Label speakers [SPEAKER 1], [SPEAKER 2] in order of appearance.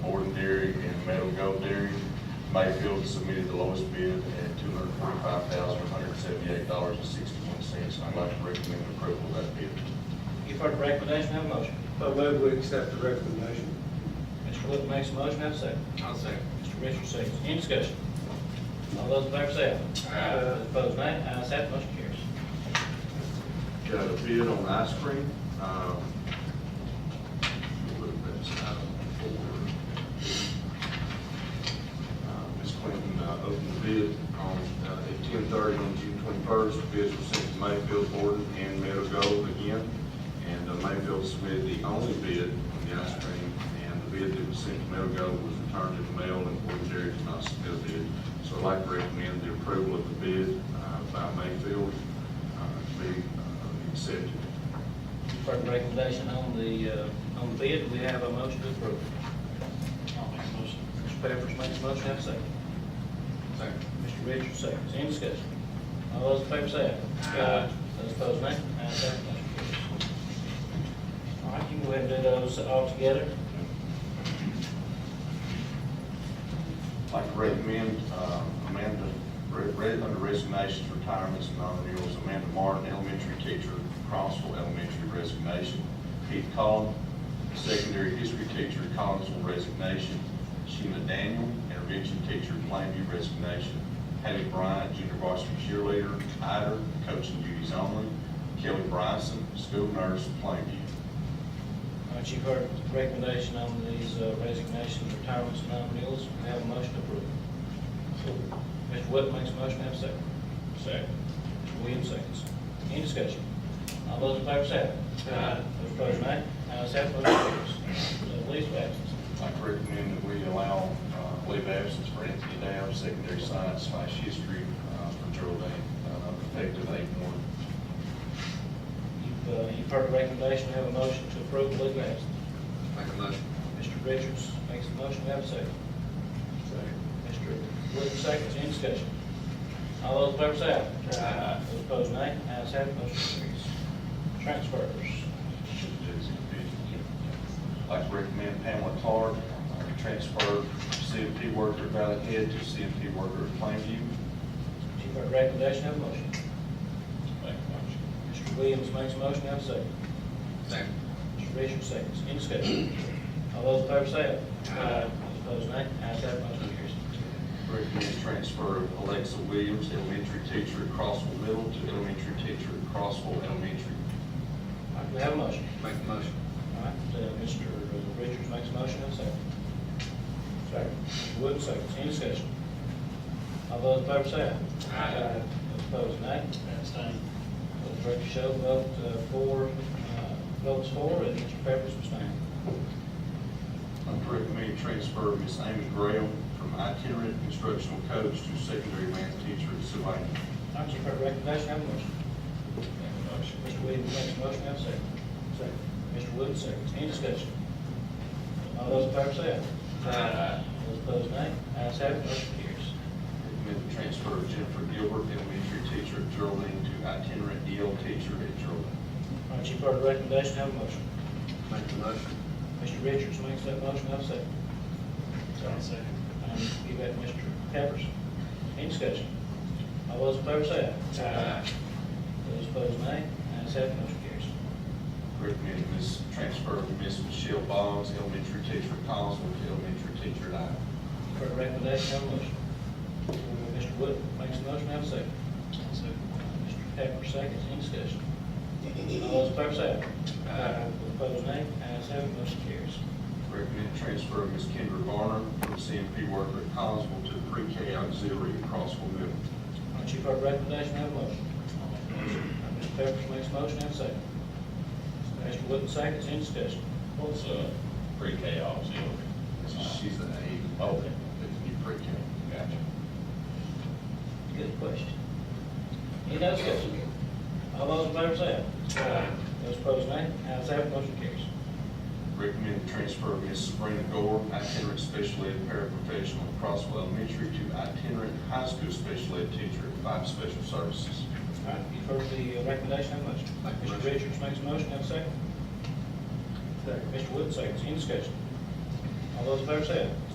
[SPEAKER 1] Mayfield submitted the lowest bid at two hundred forty-five thousand, one hundred seventy-eight dollars and sixty-one cents. I'd like to recommend approval of that bid.
[SPEAKER 2] You've heard the recommendation, have a motion.
[SPEAKER 3] I move we accept the recommendation.
[SPEAKER 2] Mr. Wood makes a motion, have a second.
[SPEAKER 4] I'll second.
[SPEAKER 2] Mr. Richards seconds. Any discussion? All those in favor say aye.
[SPEAKER 4] Aye.
[SPEAKER 2] Those Opposed, nay. Ayes have, it, motion carries.
[SPEAKER 1] Got a bid on ice cream. um, we'll look at this item four. Uh, Ms. Clinton uh, opened the bid on, uh, at ten thirty on June twenty-first. Bids were sent to Mayfield, Gordon, and Meadow Gold again. And uh, Mayfield submitted the only bid on the ice cream, and the bid that was sent to Meadow Gold was returned to the mail, and Gordon Dairy did not submit a bid. So I'd like to recommend the approval of the bid uh, by Mayfield uh, to be uh, accepted.
[SPEAKER 2] You've heard the recommendation on the, uh, on the bid. We have a motion to approve. I'll make a motion. Mr. Pepperidge makes a motion, have a second.
[SPEAKER 4] Second.
[SPEAKER 2] Mr. Richards seconds. Any discussion? All those in favor say aye.
[SPEAKER 4] Aye.
[SPEAKER 2] Those opposed, nay. Ayes have, it, motion carries. All right, you can go ahead and do those all together.
[SPEAKER 1] I'd like to recommend uh, Amanda, re- re- under resignations, retirements, and non-renewals, Amanda Martin, elementary teacher, Crossville Elementary resignation. Keith Collin, secondary history teacher, Collinsville resignation. Sheena Daniel, intervention teacher, Plainview resignation. Haley Bryant, junior varsity cheerleader, Ider, coaching duties only. Kelly Bryson, school nurse, Plainview.
[SPEAKER 2] All right, you've heard the recommendation on these uh, resignations, retirements, and non-renewals. We have a motion to approve. Mr. Wood makes a motion, have a second. Second. Mr. Williams seconds. Any discussion? All those in favor say aye.
[SPEAKER 4] Aye.
[SPEAKER 2] Those opposed, nay. Ayes have, it, motion carries. So leave of absence.
[SPEAKER 1] I recommend that we allow uh, leave of absence for Anthony Downs, secondary science slash history uh, for Geraldine, uh, effective eight one.
[SPEAKER 2] You've, uh, you've heard the recommendation, we have a motion to approve the leave of absence.
[SPEAKER 4] Make a motion.
[SPEAKER 2] Mr. Richards makes a motion, we have a second. Second. Mr. Wood seconds, any discussion? All those in favor say aye.
[SPEAKER 4] Aye.
[SPEAKER 2] Those opposed, nay. Ayes have, it, motion carries. Transfers.
[SPEAKER 1] I'd like to recommend Pamela Clark, uh, transfer CMP worker at Valley Head to CMP worker at Plainview.
[SPEAKER 2] You've heard the recommendation, have a motion. Make a motion. Mr. Williams makes a motion, have a second.
[SPEAKER 4] Second.
[SPEAKER 2] Mr. Richards seconds, any discussion? All those in favor say aye. Aye. Those opposed, nay. Ayes have, it, motion carries.
[SPEAKER 1] Recommend transfer of Alexa Williams, elementary teacher at Crossville Middle to elementary teacher at Crossville Elementary.
[SPEAKER 2] All right, we have a motion.
[SPEAKER 4] Make a motion.
[SPEAKER 2] All right, uh, Mr. Richards makes a motion, and second. Second. Mr. Wood, second, any discussion? All those in favor say aye.
[SPEAKER 4] Aye.
[SPEAKER 2] Those opposed, nay. Abstain. The record show vote uh, for, uh, votes for, and Mr. Pepperidge abstained.
[SPEAKER 1] I'd recommend transfer Miss Amy Graham from itinerant instructional coach to secondary math teacher at Sylvania.
[SPEAKER 2] All right, you've heard the recommendation, have a motion. motion. Mr. Williams makes a motion, have a second. Second. Mr. Wood, second, any discussion? All those in favor say aye.
[SPEAKER 4] Aye.
[SPEAKER 2] Those opposed, nay. Ayes have, it, motion carries.
[SPEAKER 1] Recommend the transfer of Jennifer Gilbert, elementary teacher at Geraldine, to itinerant EL teacher at Geraldine.
[SPEAKER 2] All right, you've heard the recommendation, have a motion.
[SPEAKER 4] Make a motion.
[SPEAKER 2] Mr. Richards makes that motion, I'll second. I'll second. And you got Mr. Peppers. Any discussion? All those in favor say aye.
[SPEAKER 4] Aye.
[SPEAKER 2] Those opposed, nay. Ayes have, it, motion carries.
[SPEAKER 1] Recommend this transfer of Miss Michelle Boggs, elementary teacher at Collinsville, to elementary teacher at Ider.
[SPEAKER 2] For the recommendation, have a motion. Mr. Wood makes the motion, have a second. Second. Mr. Pepper seconds, any discussion? All those in favor say aye.
[SPEAKER 4] Aye.
[SPEAKER 2] Those opposed, nay. Ayes have, it, motion carries.
[SPEAKER 1] Recommend transfer of Miss Kendra Garner from CMP worker at Collinsville to pre-K auxiliary at Crossville Middle.
[SPEAKER 2] All right, you've heard the recommendation, have a motion. Mr. Pepperidge makes a motion, have a second. Mr. Wood seconds, any discussion?
[SPEAKER 5] What's uh pre-K auxiliary?
[SPEAKER 1] She's the aide.
[SPEAKER 5] Okay.
[SPEAKER 1] That's new pre-K.
[SPEAKER 5] Gotcha.
[SPEAKER 2] Good question. Any other discussion? All those in favor say aye. Those opposed, nay. Ayes have, it, motion carries.
[SPEAKER 1] Recommend the transfer of Ms. Sabrina Gore, itinerant special ed paraprofessional at Crossville Elementary to itinerant high school special ed teacher at Five Special Services.
[SPEAKER 2] All right, you've heard the uh, recommendation, have a motion.
[SPEAKER 4] Make a
[SPEAKER 2] Mr.
[SPEAKER 4] motion.
[SPEAKER 2] Richards makes a motion, have a second. Second. Mr. Wood seconds, any discussion? All those in favor say aye.